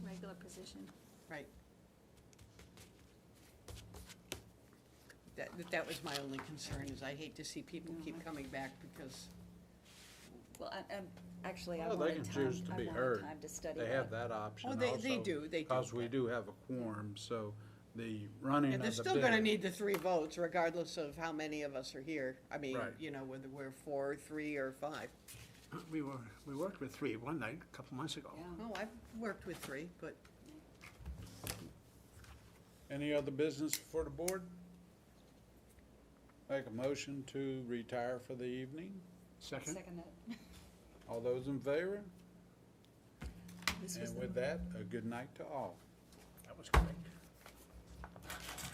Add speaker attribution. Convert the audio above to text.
Speaker 1: position.
Speaker 2: Right. That, that was my only concern, is I hate to see people keep coming back because,
Speaker 1: Well, I, I'm, actually, I
Speaker 3: Well, they
Speaker 1: wanted
Speaker 3: can
Speaker 1: time,
Speaker 3: choose to
Speaker 1: I
Speaker 3: be
Speaker 1: wanted
Speaker 3: heard.
Speaker 1: time to study that.
Speaker 3: They have that option
Speaker 2: Oh,
Speaker 3: also.
Speaker 2: they- they do, they do,
Speaker 3: Because we
Speaker 2: but-
Speaker 3: do have a quorum, so the running
Speaker 2: and
Speaker 3: of
Speaker 2: they're
Speaker 3: the
Speaker 2: still gonna
Speaker 3: bid.
Speaker 2: need the three votes regardless of how many of us are here. I mean,
Speaker 3: Right.
Speaker 2: you know, whether we're four, three, or five.
Speaker 4: We were, we worked with three one night, a couple months ago.
Speaker 1: Yeah.
Speaker 2: Oh, I've worked with three, but
Speaker 3: Any other business for the board? Make a motion to retire for the evening.
Speaker 4: Second?
Speaker 1: Second uh, that.
Speaker 3: All those in favor?
Speaker 1: This was
Speaker 3: And
Speaker 1: the-
Speaker 3: with that, a good night to all.
Speaker 4: That was correct.